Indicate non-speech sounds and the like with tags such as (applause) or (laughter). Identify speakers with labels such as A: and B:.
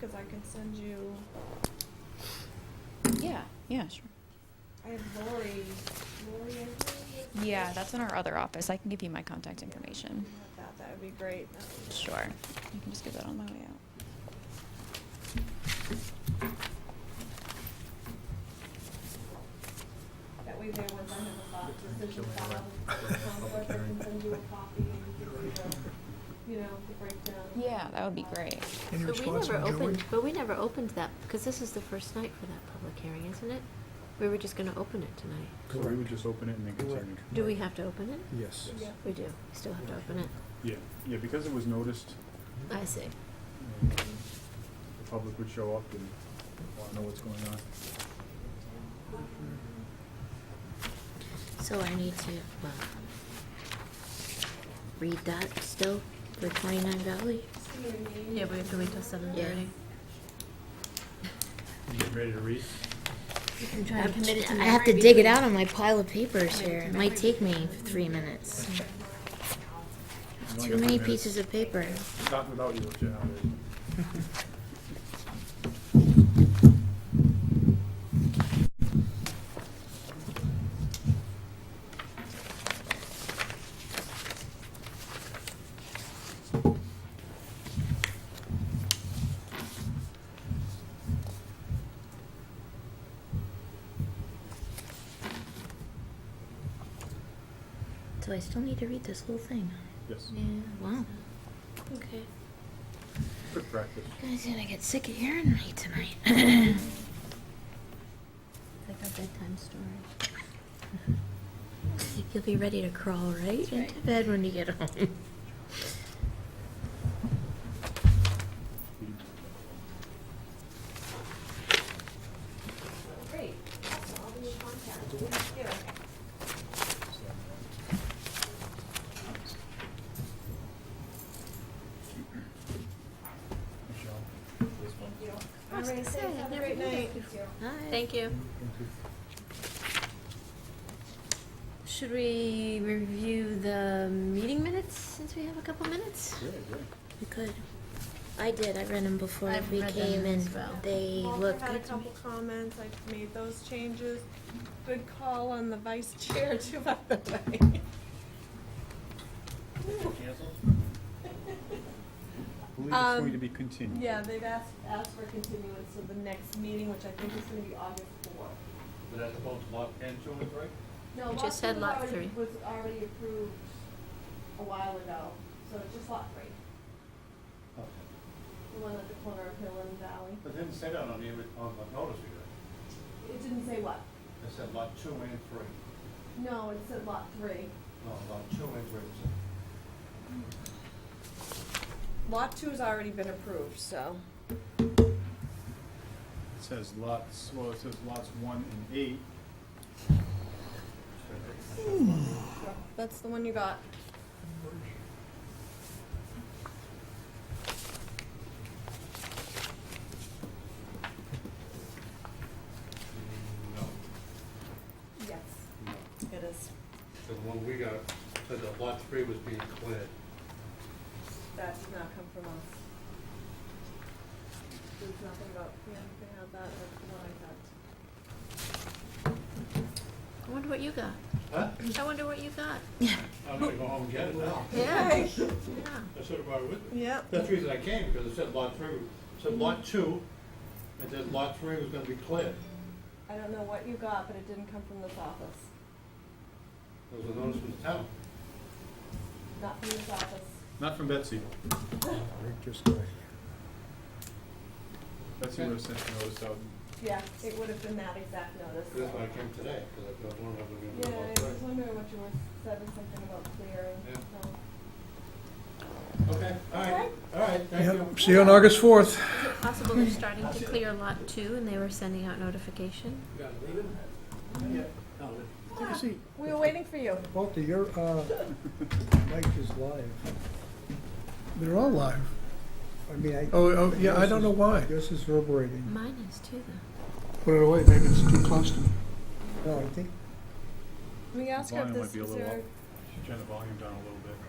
A: cause I can send you,
B: Yeah, yeah, sure.
A: I have Lori, Lori, I think.
B: Yeah, that's in our other office. I can give you my contact information.
A: That, that would be great. That would-
B: Sure. You can just give that on my way out.
A: That way there was, I have a file, decision
C: Killing
A: file,
C: right.
A: with conflict, I can
C: Public
A: send you a copy and you can see the, you know, the breakdown.
B: Yeah, that would be great.
C: Any
D: But we
C: response
D: never
C: from Joey?
D: opened, but we never opened that, because this is the first night for that public hearing, isn't it? We were just gonna open it tonight.
E: So we would just open it and then
C: Correct.
E: continue.
D: Do we have to open it?
C: Yes.
A: Yeah.
D: We do, we still have to open it.
E: Yeah, yeah, because it was noticed,
D: I see.
E: um, the public would show up and want to know what's going on.
D: So I need to, well, read that still for twenty-nine Valley?
F: Yeah, we have to wait till seven
D: Yeah.
F: thirty.
C: You ready to read?
D: I'm t- I have to dig it out on my pile of papers here. It might take me three minutes. Too many pieces of paper.
E: Not without you, Jen.
D: So I still need to read this whole thing.
E: Yes,
D: Wow. Okay.
E: good practice.
D: Guys gonna get sick of hearing me tonight. (laughs) Like a bedtime story. (laughs) You'll be ready to crawl right into bed when you get home.
A: Great, awesome, I'll be in contact. Yeah.
E: Michelle, this one.
A: Thank you. All right, thanks, have a great night.
F: Thank you.
D: Should we review the meeting minutes since we have a couple minutes?
E: Yeah, yeah.
D: We could. I did. I read them before
F: I've
D: we
F: read them
D: came, and
F: as well.
D: they
A: Walter
D: looked
A: had a
D: good to me.
A: couple comments, I made those changes. Good call on the vice (laughs) chair too, by the way.
E: I believe it's
A: Um,
E: going to be continued.
A: Yeah, they've asked, asked for continuance to the next meeting, which I think is gonna be August fourth.
G: But that's both lot and two and three?
A: No,
D: We
A: lot
D: just said
A: two was
D: lot
A: already-
D: three.
A: Was already approved a while ago, so it's just lot three,
G: Okay.
A: the one at the corner of Hill and Valley.
G: But didn't say that on the, on the notice either.
A: It didn't say what?
G: It said lot two and three.
A: No, it said lot three.
G: No, lot two and three.
A: Lot two's already been approved, so.
E: It says lots, well, it says lots one and eight.
A: That's the one you got.
G: No,
A: Yes,
G: no.
A: it is.
G: The one we got said that lot three was being cleared.
A: That did not come from us. There's nothing about, yeah, they have that, that's the one I got.
D: I wonder what you got.
G: Huh?
D: I wonder what you got.
G: I'm gonna go home and get it now.
D: Yeah.
G: I should have brought it
A: (laughs)
G: with me.
A: Yep.
G: That's the reason I came, because it said lot three, it said lot two, and then lot three was gonna be cleared.
A: I don't know what you got, but it didn't come from this office.
G: There was a notice from the town.
A: Not from this office.
E: Not from Betsy.
C: Rick just got here.
E: Betsy would have sent the notice out.
A: Yeah, it would have been that exact notice.
G: That's why I came today, because I thought, I wonder if
A: Yeah,
G: we're gonna do lot
A: I
G: three.
A: was wondering what you were, said was something about clearing,
G: Yeah.
A: so.
G: Okay, all right, all right, thank you.
C: Yep, see you on August fourth.
D: Is it possible they're starting to clear lot two and they were sending out notification?
G: You gotta leave it? Yeah. No, leave it.
A: We were waiting for you.
C: Walter, your, uh, mic is live.
H: They're all live.
C: I mean, I.
H: Oh, oh, yeah, I don't know why.
C: Yours is reverberating.
D: Mine is too, though.
H: Put it away, maybe it's too close to me.
C: No, I think
A: We asked her if
E: Volume might
A: this,
E: be a
A: is
E: little
A: there,
E: up. Turn the volume down a little bit.